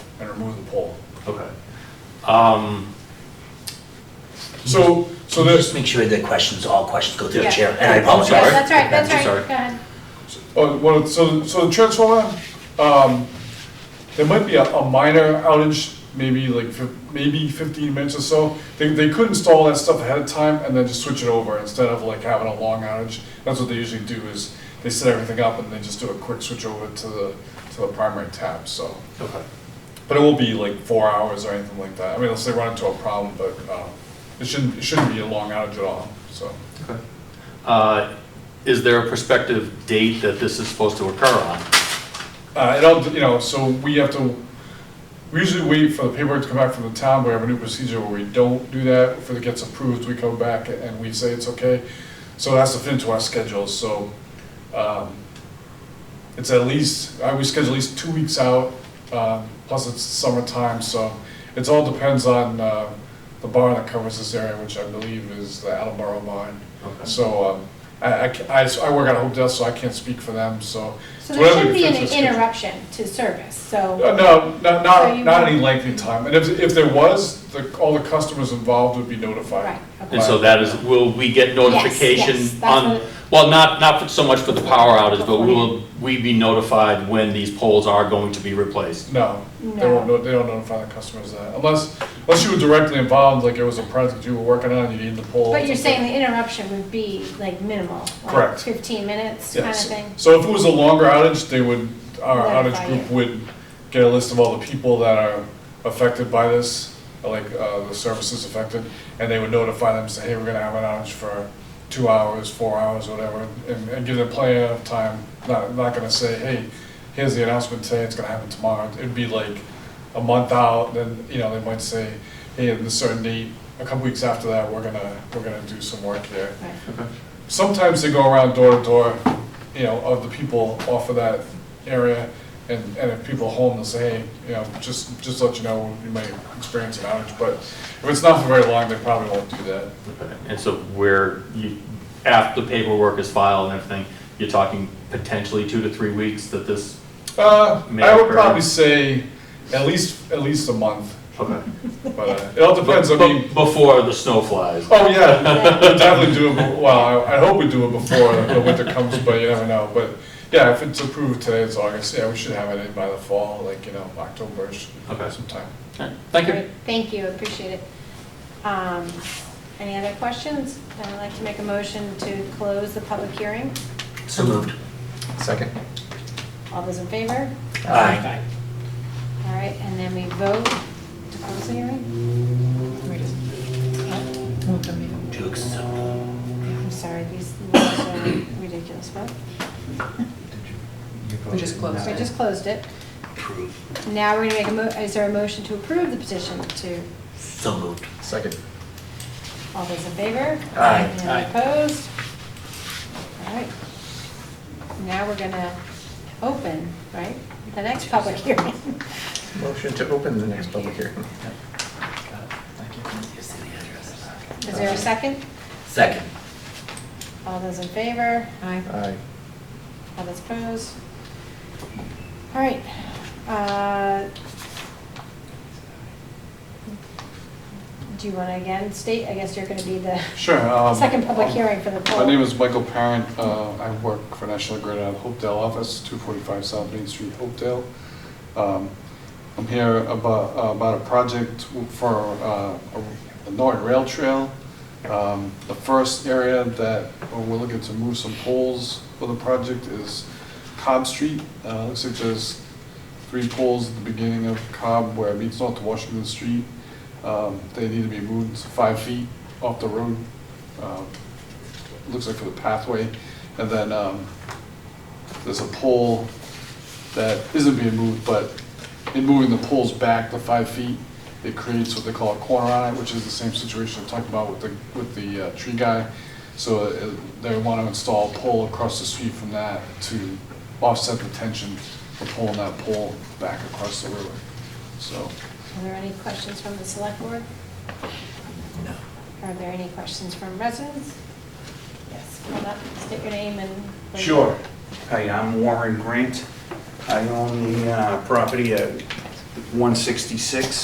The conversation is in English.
and remove the pole. Okay. Um, So, so Can you this, just make sure that questions, all questions go through the Yeah. chair? And I Yeah, apologize. that's right, that's I'm right, sorry. go ahead. oh, well, so, so the transformer, um, there might be a, a minor outage, maybe like, fif- maybe fifteen minutes or so. They, they could install that stuff ahead of time and then just switch it over instead of like having a long outage. That's what they usually do is they set everything up and they just do a quick switch over to the, to the primary tab, so. okay. But it won't be like four hours or anything like that. I mean, unless they run into a problem, but uh, it shouldn't, it shouldn't be a long outage at all, so. Okay. Uh, Is there a prospective date that this is supposed to occur on? Uh, It all, you know, so we have to, we usually wait for the paperwork to come back from the town. We have a new procedure where we don't do that. If it gets approved, we come back and we say it's okay. So it has to fit into our schedules, so um, it's at least, I we schedule at least two weeks out, um, plus it's summertime, so it's all depends on uh, the barn that covers this area, which I believe is the Alabama barn. Okay. So um, I, I ca- I s- I work at Hope Desk, so I can't speak for them, so. So it's there whatever shouldn't be fits an the schedule. interruption to service, so, Uh, No, not, So not, you not won't- any lengthy time, and if, if there was, the, all the customers involved would be notified. right, And okay. so that is, will we get yes, notification that's on, what- well, not, not so much for the power outage, but will we be notified when these poles are going to be replaced? No, they won't, No. no- they don't notify the customers that, unless, unless you were directly involved, like it was a project you were working on, you needed the poll. But you're saying the interruption would be like minimal? like Correct. Fifteen minutes kind of thing? So if it was a longer outage, they would, our outage Notify group you. would get a list of all the people that are affected by this, like, uh, the services affected, and they would notify them, say, hey, we're gonna have an outage for two hours, four hours, whatever, and, and give them plenty of time, not, not gonna say, hey, here's the announcement today, it's gonna happen tomorrow, it'd be like a month out, then, you know, they might say, hey, at a certain date, a couple weeks after that, we're gonna, we're gonna do some work here Right. sometimes they go around door to door, you know, of the people off of that area, and, and if people are home, they'll say, hey, you know, just, just let you know, you may experience an outage, but if it's not for very long, they probably won't do that. Okay. And so where you, after the paperwork is filed and everything, you're talking potentially two to three weeks that this, Uh, May I would occur. probably say at least, at least a month, okay. but uh, it all depends, I But- mean, but Before the snow flies. oh yeah, we'll definitely do it, be- well, I, I hope we do it before the winter comes, but you never know, but yeah, if it's approved today, it's August, yeah, we should have it in by the fall, like, you know, October-ish, Okay. sometime. Okay. Thank you. Great, Thank you, appreciate it. Um, Any other questions? I'd like to make a motion to close the public hearing. So moved. Second. All those in favor? Aye. All right, and then we vote to close the hearing? Where does- oh, To accept. I'm sorry, these laws are ridiculous, but We just closed we just closed it. Approve. Now we're gonna make a mo, is there a motion to approve the petition to, So moved. Second. all those in favor? Aye. Anyone opposed? All right. Now we're gonna open, right, the next public hearing. Motion to open the next public hearing. Is there a second? Second. All those in favor? Aye. Aye. All those opposed? All right. uh, Do you want to again state, I guess you're going to be the Sure. um, second public hearing for the poll? My name is Michael Parent. Uh, I work for National Grid out of Hopedale office, 245 South Main Street, Hopedale. Um, I'm here about, about a project for uh, a- a Norton Rail Trail. Um, The first area that we're looking to move some poles for the project is Cobb Street. Uh, Looks like there's three poles at the beginning of Cobb where it meets North Washington Street. Um, They need to be moved five feet off the road. Um, Looks like for the pathway. And then um, there's a pole that isn't being moved, but in moving the poles back the five feet, it creates what they call a corner on it, which is the same situation I talked about with the, with the uh, tree guy. So uh, they want to install a pole across the street from that to offset the tension of pulling that pole back across the river. So, Are there any questions from the select board? No. Are there any questions from residents? Yes, come up, state your name and. Sure. Hi, I'm Warren Grant. I own the uh, property at 166